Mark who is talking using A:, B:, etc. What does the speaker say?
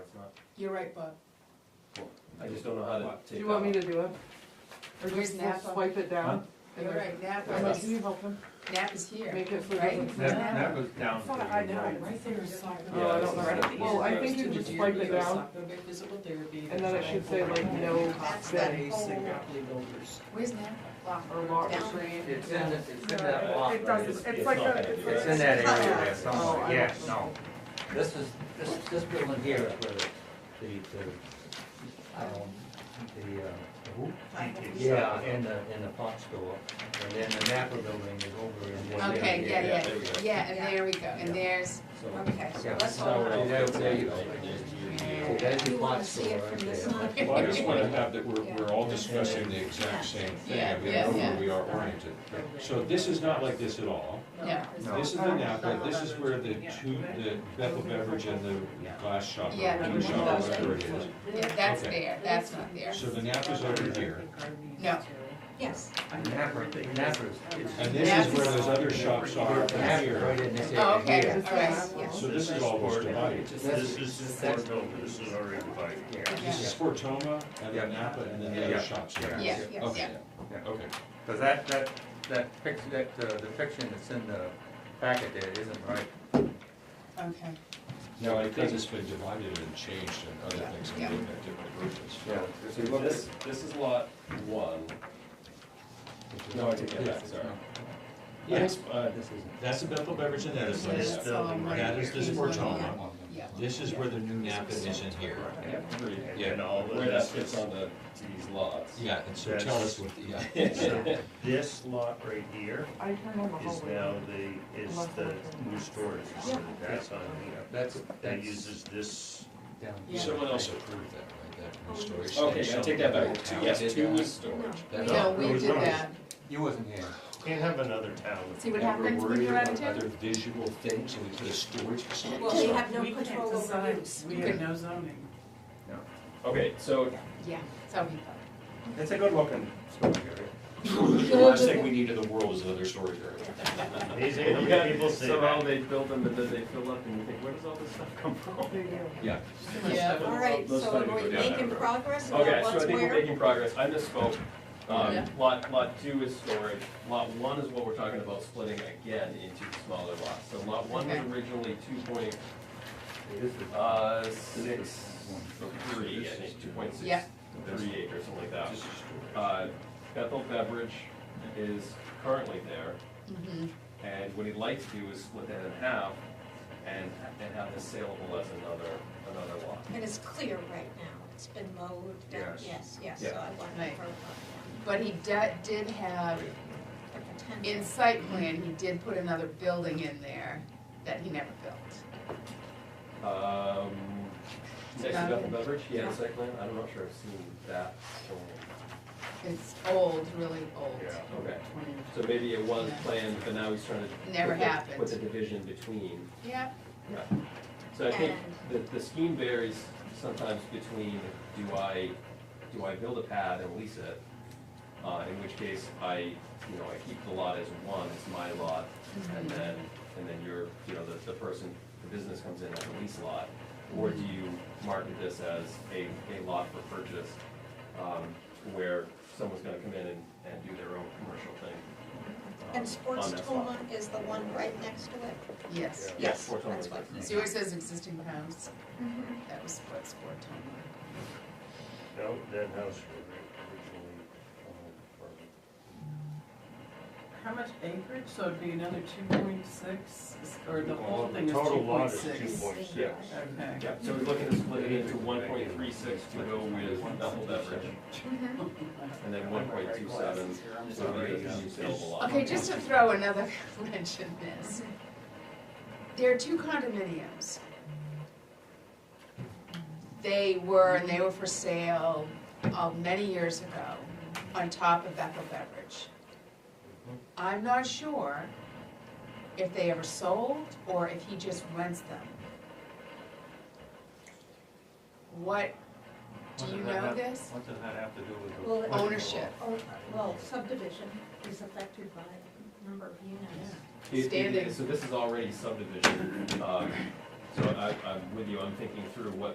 A: You're right, Bob.
B: I just don't know how to
C: Do
B: take
C: you want me
B: that.
C: to do it? Or
A: Where's
C: just we'll
A: Napa?
C: swipe it down? and
A: You're
C: there-
A: right, Nap
C: Emma,
A: is,
C: Can you help him?
A: Nap is here.
C: Make it so it
A: Right?
C: doesn't-
A: Nap-
D: That, that was down.
C: thought I know.
D: right?
A: Right there is soccer.
B: Yeah,
C: Oh, I don't
B: this is
C: know.
B: the
C: Well, I
B: easiest
C: think you
B: approach
C: just wipe it down,
E: Physical therapy.
C: and then it should say like no
A: That's that
C: bed.
A: whole-
E: builders.
A: Where's Nap? Lock.
C: Or lock.
A: Down there.
D: It's in, the- it's in that block.
F: It doesn't, it's like
B: not
F: a,
B: gonna be
F: it's
B: there.
F: a-
D: It's in that area there
C: Oh,
D: somewhere,
C: I
D: yeah,
C: don't
D: no.
C: know.
D: This is, this, this building here is where the, the, um, the, uh, the hoop is, uh, in the, in the pot store. And then the Napa building is over in one area.
A: Okay, yeah, yeah,
B: there we go.
A: yeah, and there we go, and
D: Yeah.
A: there's, okay, so
D: Yeah,
A: let's
D: so,
A: hold on.
D: uh, there, there you go.
A: Yeah.
D: So that's the
A: You
D: pot
A: wanna see
D: store
A: it
D: right
A: from
D: there.
A: this
D: That's
A: side?
G: Well, I
D: what-
G: just wanna have that, we're,
A: Yeah.
G: we're all discussing the exact same thing,
A: Yeah,
G: I mean,
A: yeah,
G: I know where
A: yeah.
G: we are oriented. So this is not like this at all,
A: No,
D: No.
G: this is the Napa, this is where the two, the Bethel Beverage and the glass shop,
A: Yeah.
G: or two shop, whatever it is.
A: yeah, that's
G: Okay.
A: there, that's not there.
G: So the Napa's over here,
A: No. Yes.
D: Napa, Napa's, it's.
G: and this is where those other shops are
D: Napa's
G: from
D: right
G: here,
D: in this
A: Oh,
D: area
A: okay, all
D: here.
A: right, yes.
G: so this is all was divided.
D: This
H: This is for building, this is already divided.
D: Yeah.
G: This is Fortoma, and then Napa, and then the
D: Yeah.
G: other shops here.
A: Yeah, yes,
G: Okay,
A: yeah.
G: okay.
D: Because that, that, that picture, that, uh, depiction that's in the packet there isn't right.
A: Okay,
G: No, I think it's been divided and changed and other things, and
A: Yeah.
G: looking at different versions.
D: Yeah.
B: So This, this is lot one. No, I take that back, sorry. Yes, uh,
D: This isn't.
G: that's the Bethel Beverage and the other
A: so
G: place.
A: that's all right
G: That is
A: here.
G: this Fortoma.
A: Yeah, yeah.
G: This is where the new Napa is in here.
H: And all of
G: Where that
H: this,
G: fits
H: is-
G: on the, these lots.
H: Yeah, and so tell us what
G: the. uh,
H: this lot right here
C: I turn on the
H: is
C: hallway.
H: now the, is the new storage facility, that's on here.
D: That's,
H: That
D: that's
H: uses this,
D: down.
G: Someone else approved that, right, that new storage.
B: Okay, I
G: station.
B: take that back, Two- yes,
D: Did
B: two
D: that.
B: was storage.
D: That's-
A: No, we
H: No,
A: did
H: no.
A: that,
D: You wasn't here.
H: can't have another town with.
F: See what
G: And we're
F: happens when
G: worried
F: you're out
G: about
F: of town?
G: other visual things, and we put a storage facility.
F: Well, you have no
C: We can't
F: control over
C: decide.
F: use.
C: We
A: have
C: no zoning.
B: Okay, so
A: yeah, so we thought.
D: It's a good looking storage area.
B: the last thing we need in the world is another storage area.
H: Amazing how many people say that.
I: they built them and then they fill up and you think, where does all this stuff come from?
B: Yeah.
A: Yeah.
F: All right,
I: Let's
F: so
I: not
F: are
I: go
F: we
I: down that
F: making
I: road.
F: progress
I: Okay,
F: about
I: so I
F: what's
I: think we're
F: where?
I: making progress, I misspoke.
A: Yeah.
I: Um, lot, lot two is storage, lot one is what we're talking about splitting again into smaller lots. So lot one was
A: Okay.
I: originally two point,
D: It is the-
I: uh, six, three, I think, two point six,
A: Yeah.
I: three eight or something like that. Uh, Bethel Beverage is currently there.
A: Mhm.
I: And what he'd like to do is split that in half and, and have this saleable as another, another lot.
F: And it's clear right now, it's been mowed, down.
D: Yes.
F: yes, yes, so
I: Yeah.
F: I want to
A: Right.
F: vote
A: But he did, did have,
F: on that. The
A: in
F: potential.
A: site plan, he did put another building in there that he never built.
I: Um, next to
A: Um,
I: Bethel Beverage, he had a site plan, I'm not sure I've seen that shown.
A: It's old, really old.
H: Yeah.
I: Okay, so maybe it was planned, but now he's trying to.
A: Never
I: put the-
A: happened.
I: Put the division between,
A: Yeah,
I: right. So I think the, the scheme varies sometimes between, do I, do I build a pad and lease it? Uh, in which case I, you know, I keep the lot as one, it's my lot,
F: Mm-hmm.
I: and then, and then you're, you know, the, the person, the business comes in as a lease lot. Or do
F: Mm-hmm.
I: you market this as a, a lot for purchase, um, where someone's gonna come in and, and do their own commercial thing? um,
F: And Sports
I: on that lot?
F: Toma is the one right next to it?
A: yes.
I: Yeah,
F: Yes,
I: Sports Toma
F: that's
I: is
F: what-
I: right.
A: See where it says existing house?
F: Mhm.
A: That was what's for Toma.
H: No, that house was originally owned for
C: How much acreage, so it'd be another two point six, or the whole thing is two
H: Total lot
C: point
H: is two
C: six?
H: point six.
C: Okay.
I: Yeah, so we're looking to split it into one point three six to go with Bethel Beverage,
F: Mm-hmm.
I: and then one point two seven.
A: Okay, just to throw another wrench in this. There are two condominiums. They were, and they were for sale, uh, many years ago, on top of Bethel Beverage. I'm not sure if they ever sold, or if he just rents them. What, do you know this?
H: What does that have to do with the?
F: Well, it-
A: Ownership,
F: Oh, Well, subdivision is affected by number of units.
A: standing.
I: So this is already subdivision, um, so I, I'm with you, I'm thinking through what